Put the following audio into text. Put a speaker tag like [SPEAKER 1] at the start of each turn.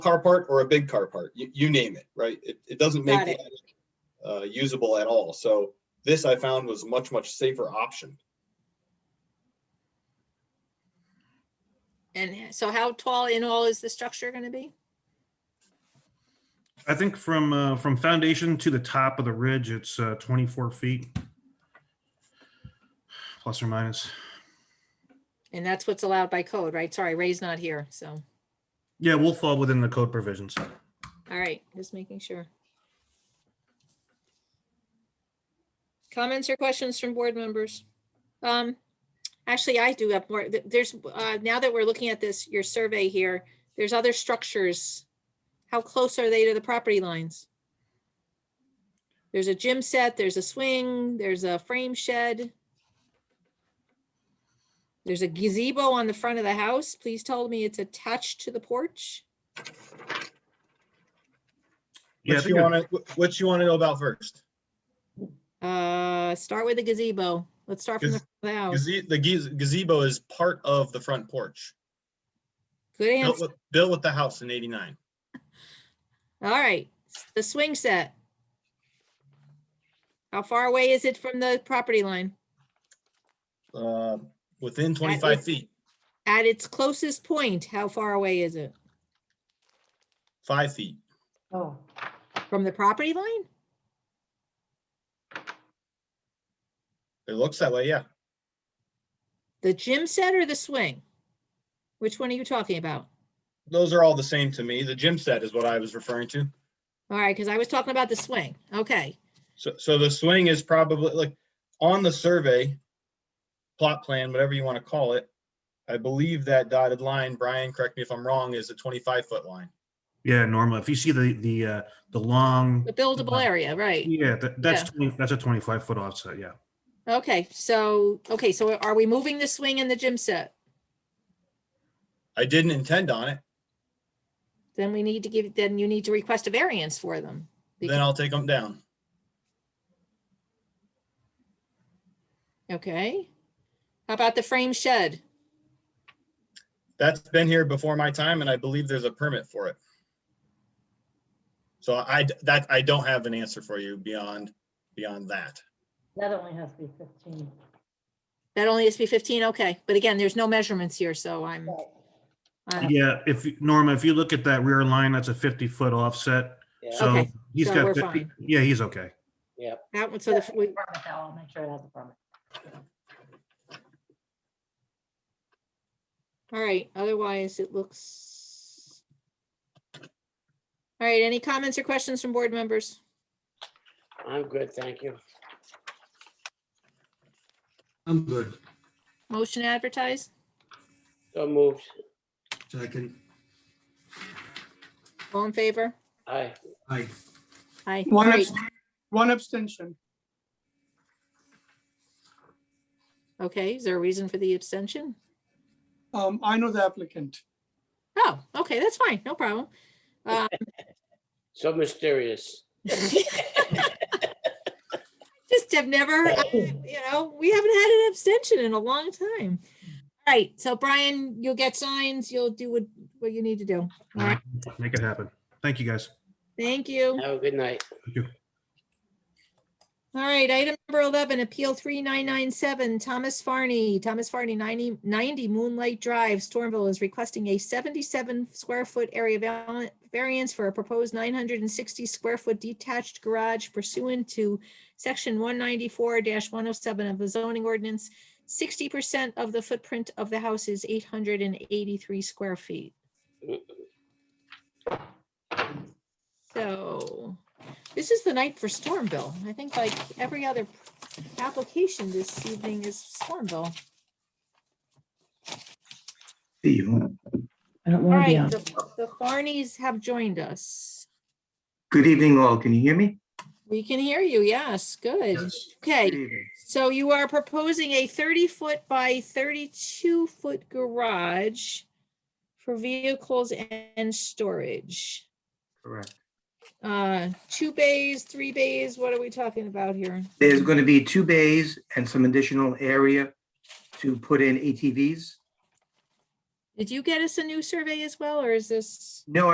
[SPEAKER 1] car part or a big car part, you, you name it, right? It, it doesn't make
[SPEAKER 2] Got it.
[SPEAKER 1] that, uh, usable at all. So this I found was much, much safer option.
[SPEAKER 2] And so how tall in all is the structure going to be?
[SPEAKER 3] I think from, uh, from foundation to the top of the ridge, it's, uh, twenty-four feet. Plus or minus.
[SPEAKER 2] And that's what's allowed by code, right? Sorry, Ray's not here, so,
[SPEAKER 3] Yeah, we'll fall within the code provisions.
[SPEAKER 2] all right, just making sure. Comments or questions from board members? Um, actually, I do have more. Th- There's, uh, now that we're looking at this, your survey here, there's other structures. How close are they to the property lines? There's a gym set, there's a swing, there's a frame shed. There's a gazebo on the front of the house. Please tell me it's attached to the porch.
[SPEAKER 3] Yeah, I
[SPEAKER 1] Which
[SPEAKER 3] think
[SPEAKER 1] you
[SPEAKER 3] it-
[SPEAKER 1] want to, which you want to know about first?
[SPEAKER 2] Uh, start with the gazebo. Let's start from the
[SPEAKER 1] Gaz-
[SPEAKER 2] front of the house.
[SPEAKER 1] Gaze- The gaze- gazebo is part of the front porch,
[SPEAKER 2] Good
[SPEAKER 1] built
[SPEAKER 2] answer.
[SPEAKER 1] with, built with the house in 89.
[SPEAKER 2] All right, the swing set. How far away is it from the property line?
[SPEAKER 1] Uh, Within 25
[SPEAKER 2] is-
[SPEAKER 1] feet,
[SPEAKER 2] At its closest point, how far away is it?
[SPEAKER 1] five feet.
[SPEAKER 4] Oh,
[SPEAKER 2] From the property line?
[SPEAKER 1] It looks that way, yeah.
[SPEAKER 2] The gym set or the swing? Which one are you talking about?
[SPEAKER 1] Those are all the same to me. The gym set is what I was referring to.
[SPEAKER 2] All right, because I was talking about the swing. Okay,
[SPEAKER 1] So, so the swing is probably like on the survey, plot plan, whatever you want to call it. I believe that dotted line, Brian, correct me if I'm wrong, is a 25 foot line.
[SPEAKER 3] Yeah, Norma, if you see the, the, uh, the long,
[SPEAKER 2] the buildable area, right?
[SPEAKER 3] yeah, that- that's, 20 that's a twenty-five foot offset, yeah.
[SPEAKER 2] Okay, so, okay, so are we moving the swing and the gym set?
[SPEAKER 1] I didn't intend on it.
[SPEAKER 2] Then we need to give, then you need to request a variance for them.
[SPEAKER 1] Then I'll take them down.
[SPEAKER 2] Okay. How about the frame shed?
[SPEAKER 1] That's been here before my time and I believe there's a permit for it. So I, d- that, I don't have an answer for you beyond, beyond that.
[SPEAKER 4] that only has to be fifteen.
[SPEAKER 2] That only has to be fifteen, okay. But again, there's no measurements here, so I'm, uh, I'm-
[SPEAKER 3] Yeah, if, you- Norma, if you look at that rear line, that's a fifty-foot offset. So
[SPEAKER 2] Okay,
[SPEAKER 3] he's
[SPEAKER 2] so
[SPEAKER 3] got,
[SPEAKER 2] we're
[SPEAKER 3] 50
[SPEAKER 2] fine.
[SPEAKER 3] yeah, he's okay.
[SPEAKER 2] that one, so
[SPEAKER 4] So
[SPEAKER 2] the, we-
[SPEAKER 4] I'll make sure it has a permit.
[SPEAKER 2] all right, otherwise it looks. All right, any comments or questions from board members?
[SPEAKER 5] I'm good, thank you.
[SPEAKER 6] I'm good.
[SPEAKER 2] Motion advertised?
[SPEAKER 5] So moved.
[SPEAKER 6] Second,
[SPEAKER 2] All in favor?
[SPEAKER 5] Aye.
[SPEAKER 6] aye.
[SPEAKER 2] Aye. All
[SPEAKER 7] One,
[SPEAKER 2] right,
[SPEAKER 7] abst- one abstention.
[SPEAKER 2] okay, is there a reason for the abstention?
[SPEAKER 7] Um, I know the applicant.
[SPEAKER 2] Oh, okay, that's fine, no problem. Um,
[SPEAKER 5] So mysterious.
[SPEAKER 2] Just have never, I- you know, we haven't had an abstention in a long time. All right, so Brian, you'll get signs, you'll do what, what you need to do. All right.
[SPEAKER 3] Make it happen. Thank you, guys.
[SPEAKER 2] Thank you.
[SPEAKER 5] Have a good night.
[SPEAKER 2] All right, item number 11, Appeal 3997, Thomas Farney, Thomas Farney, 90 90 Moonlight Drive, Stormville is requesting a 77 square foot area val- variance for a proposed 960 square foot detached garage pursuant to section 194-107 of the zoning ordinance. 60% of the footprint of the house is 883 square feet. So this is the night for Stormville. I think like every other application this evening is Stormville.
[SPEAKER 4] I don't
[SPEAKER 2] All
[SPEAKER 4] want to be
[SPEAKER 2] right,
[SPEAKER 4] on.
[SPEAKER 2] the the Farneys have joined us.
[SPEAKER 6] Good evening all. Can you hear me?
[SPEAKER 2] We can hear you. Yes, good.
[SPEAKER 6] Yes. Good
[SPEAKER 2] Okay,
[SPEAKER 6] evening.
[SPEAKER 2] so you are proposing a 30-foot by 32-foot garage for vehicles and storage.
[SPEAKER 6] Correct.
[SPEAKER 2] Uh, Two bays, three bays, what are we talking about here?
[SPEAKER 6] There's going to be two bays and some additional area to put in ATVs.
[SPEAKER 2] Did you get us a new survey as well, or is this?
[SPEAKER 6] No,